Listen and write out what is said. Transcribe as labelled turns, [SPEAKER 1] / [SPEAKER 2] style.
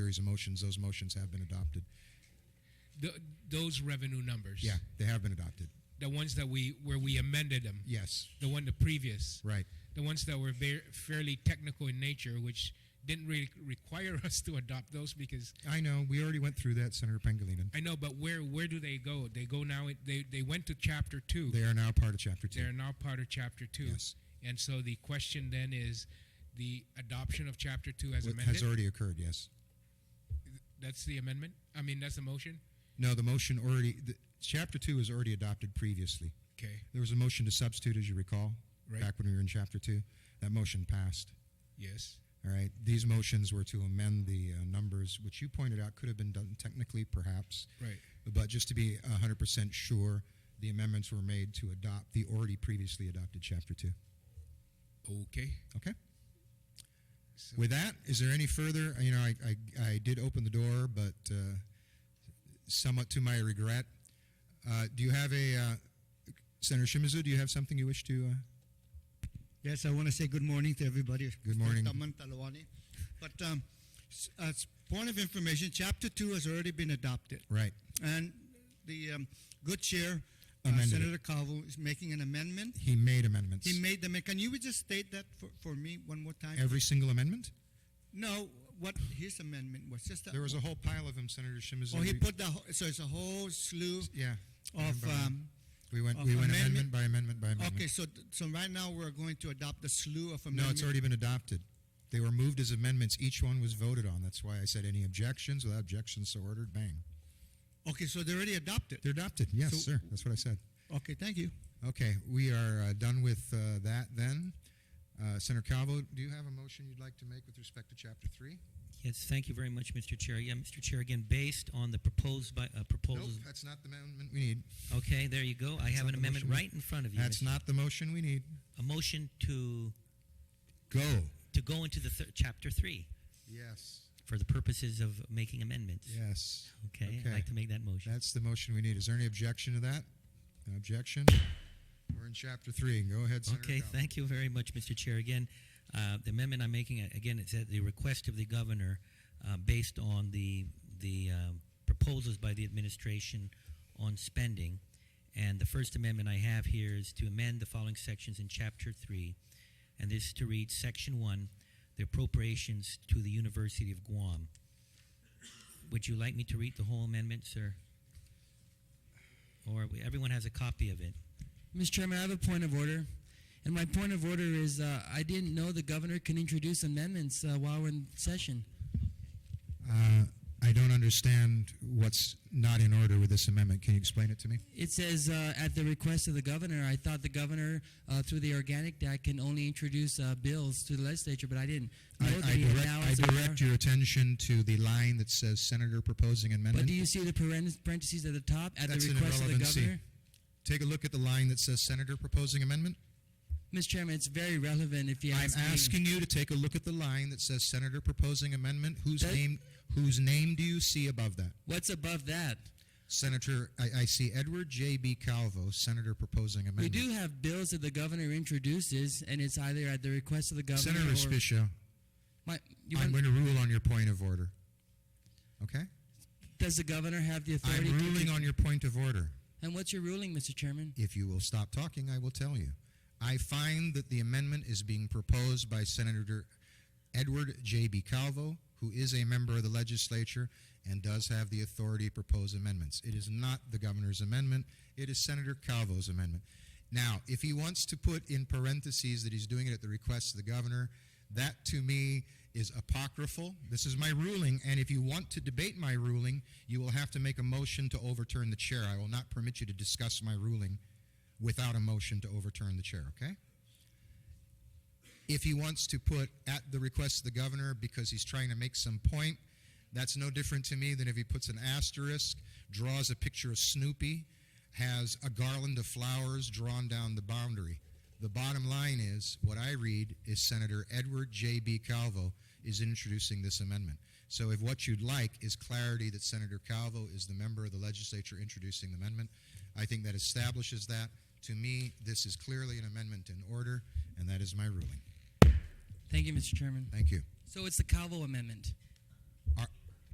[SPEAKER 1] series of motions, those motions have been adopted.
[SPEAKER 2] Th those revenue numbers.
[SPEAKER 1] Yeah, they have been adopted.
[SPEAKER 2] The ones that we where we amended them.
[SPEAKER 1] Yes,
[SPEAKER 2] The one the previous.
[SPEAKER 1] right.
[SPEAKER 2] The ones that were very, fairly technical in nature, which didn't really require us to adopt those because
[SPEAKER 1] I know, we already went through that, Senator Pangilinan.
[SPEAKER 2] I know. But where where do they go? They go now. They they went to chapter two.
[SPEAKER 1] They are now part of Chapter
[SPEAKER 2] They're
[SPEAKER 1] 2.
[SPEAKER 2] now part of chapter two.
[SPEAKER 1] Yes.
[SPEAKER 2] And so the question then is the adoption of chapter two as
[SPEAKER 1] What
[SPEAKER 2] amended.
[SPEAKER 1] has already occurred, yes.
[SPEAKER 2] that's the amendment. I mean, that's the motion.
[SPEAKER 1] No, the motion already, the, Chapter 2 was already adopted previously.
[SPEAKER 2] Okay.
[SPEAKER 1] There was a motion to substitute, as you recall,
[SPEAKER 2] Right.
[SPEAKER 1] back when we were in Chapter 2. That motion passed.
[SPEAKER 2] Yes.
[SPEAKER 1] All right, these motions were to amend the uh, numbers, which you pointed out could have been done technically, perhaps.
[SPEAKER 2] Right.
[SPEAKER 1] But just to be 100% sure, the amendments were made to adopt the already previously adopted Chapter 2.
[SPEAKER 2] Okay.
[SPEAKER 1] Okay?
[SPEAKER 2] So,
[SPEAKER 1] With that, is there any further? You know, I, I, I did open the door, but uh, somewhat to my regret. Uh, do you have a, uh, Senator Shimizu, do you have something you wish to? Uh,
[SPEAKER 3] Yes, I want to say good morning to everybody.
[SPEAKER 1] Good morning.
[SPEAKER 3] Taman Talawani. But um, s- as point of information, Chapter 2 has already been adopted.
[SPEAKER 1] right.
[SPEAKER 3] And the um, good chair, uh,
[SPEAKER 1] Amended it.
[SPEAKER 3] Senator Calvo, is making an amendment.
[SPEAKER 1] He made amendments.
[SPEAKER 3] He made them. And can you just state that for, for me one more time?
[SPEAKER 1] Every single amendment?
[SPEAKER 3] No, what his amendment was just that.
[SPEAKER 1] There was a whole pile of them, Senator Shimizu.
[SPEAKER 3] Oh, he put the whole, so it's a whole slew
[SPEAKER 1] Yeah.
[SPEAKER 3] of. Um,
[SPEAKER 1] we went,
[SPEAKER 3] of
[SPEAKER 1] we went amendment
[SPEAKER 3] amendment-
[SPEAKER 1] by amendment by amendment.
[SPEAKER 3] okay, so so right now we're going to adopt the slew of amendments.
[SPEAKER 1] No, it's already been adopted. They were moved as amendments. Each one was voted on. That's why I said any objections. Without objections, so ordered. Bang.
[SPEAKER 3] Okay, so they're already adopted.
[SPEAKER 1] They're adopted. Yes,
[SPEAKER 3] So-
[SPEAKER 1] sir. That's what I said.
[SPEAKER 3] Okay, thank you.
[SPEAKER 1] Okay, we are uh, done with uh, that then. Uh, Senator Calvo, do you have a motion you'd like to make with respect to Chapter 3?
[SPEAKER 4] Yes, thank you very much, Mr. Chair. Yeah, Mr. Chair, again, based on the proposed by, uh,
[SPEAKER 1] Nope,
[SPEAKER 4] proposals.
[SPEAKER 1] that's not the amendment we need.
[SPEAKER 4] Okay, there you go. I
[SPEAKER 1] That's
[SPEAKER 4] have
[SPEAKER 1] not
[SPEAKER 4] an
[SPEAKER 1] the
[SPEAKER 4] amendment
[SPEAKER 1] motion.
[SPEAKER 4] right in front of you.
[SPEAKER 1] That's
[SPEAKER 4] Mr.
[SPEAKER 1] not the motion we need.
[SPEAKER 4] A motion to,
[SPEAKER 1] Go.
[SPEAKER 4] to go into the thir- chapter three
[SPEAKER 1] Yes,
[SPEAKER 4] for the purposes of making amendments.
[SPEAKER 1] yes.
[SPEAKER 4] Okay,
[SPEAKER 1] Okay.
[SPEAKER 4] I'd like to make that motion.
[SPEAKER 1] That's the motion we need. Is there any objection to that? An objection? We're in Chapter 3. Go ahead, Senator
[SPEAKER 4] Okay,
[SPEAKER 1] Calvo.
[SPEAKER 4] thank you very much, Mr. Chair. Again, uh, the amendment I'm making, uh, again, it's at the request of the governor, uh, based on the, the um, proposals by the administration on spending. And the first amendment I have here is to amend the following sections in Chapter 3, and this is to read Section 1, the appropriations to the University of Guam. Would you like me to read the whole amendment, sir? Or we- everyone has a copy of it?
[SPEAKER 5] Mr. Chairman, I have a point of order. And my point of order is uh, I didn't know the governor can introduce amendments uh, while we're in session.
[SPEAKER 1] Uh, I don't understand what's not in order with this amendment. Can you explain it to me?
[SPEAKER 5] It says uh, at the request of the governor. I thought the governor, uh, through the Organic Act, can only introduce uh, bills to the legislature, but I didn't know
[SPEAKER 1] I,
[SPEAKER 5] that
[SPEAKER 1] I
[SPEAKER 5] he had
[SPEAKER 1] direct,
[SPEAKER 5] now
[SPEAKER 1] I
[SPEAKER 5] as a power-
[SPEAKER 1] direct your attention to the line that says Senator proposing amendment.
[SPEAKER 5] But do you see the paren- parentheses at the top at
[SPEAKER 1] That's
[SPEAKER 5] the
[SPEAKER 1] an
[SPEAKER 5] request of the
[SPEAKER 1] irrelevancy.
[SPEAKER 5] governor?
[SPEAKER 1] Take a look at the line that says Senator proposing amendment.
[SPEAKER 5] Mr. Chairman, it's very relevant if you
[SPEAKER 1] I'm
[SPEAKER 5] ask me.
[SPEAKER 1] asking you to take a look at the line that says Senator proposing amendment. Whose
[SPEAKER 5] That-
[SPEAKER 1] name? Whose name do you see above that?
[SPEAKER 5] What's above that?
[SPEAKER 1] Senator, I, I see Edward J. B. Calvo, Senator proposing
[SPEAKER 5] We
[SPEAKER 1] amendment.
[SPEAKER 5] do have bills that the governor introduces, and it's either at the request of the governor
[SPEAKER 1] Senator
[SPEAKER 5] or
[SPEAKER 1] Spisha,
[SPEAKER 5] My, you
[SPEAKER 1] I'm
[SPEAKER 5] want-
[SPEAKER 1] going to rule on your point of order. Okay,
[SPEAKER 5] Does the governor have the
[SPEAKER 1] I'm
[SPEAKER 5] authority? to-
[SPEAKER 1] ruling on your point of order.
[SPEAKER 5] And what's your ruling, Mr. Chairman?
[SPEAKER 1] If you will stop talking, I will tell you. I find that the amendment is being proposed by Senator Edward J.B. Calvo, who is a member of the legislature and does have the authority to propose amendments. It is not the governor's amendment, it is Senator Calvo's amendment. Now, if he wants to put in parentheses that he's doing it at the request of the governor, that to me is apocryphal. This is my ruling, and if you want to debate my ruling, you will have to make a motion to overturn the chair. I will not permit you to discuss my ruling without a motion to overturn the chair, okay? If he wants to put at the request of the governor because he's trying to make some point, that's no different to me than if he puts an asterisk, draws a picture of Snoopy, has a garland of flowers drawn down the boundary. The bottom line is what I read is Senator Edward J.B. Calvo is introducing this amendment. So if what you'd like is clarity that Senator Calvo is the member of the legislature introducing the amendment, I think that establishes that. To me, this is clearly an amendment in order, and that is my ruling.
[SPEAKER 5] Thank you, Mr. Chairman.
[SPEAKER 1] Thank you.
[SPEAKER 5] So it's the Calvo Amendment.